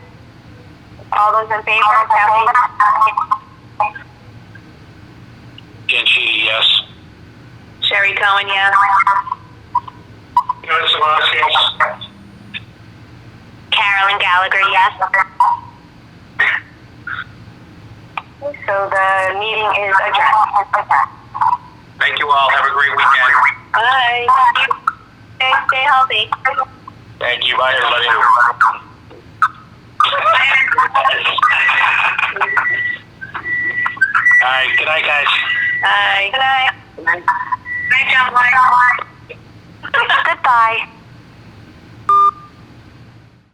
All those in favor of having Dan Sheedy, yes. Sherry Cohen, yes. Louis Sabaski, yes. Carolyn Gallagher, yes. So the meeting is adjourned. Thank you all. Have a great weekend. Bye. Stay, stay healthy. Thank you. Bye, everybody. All right. Good night, guys. Bye. Good night. Good night. Good night, John. Goodbye.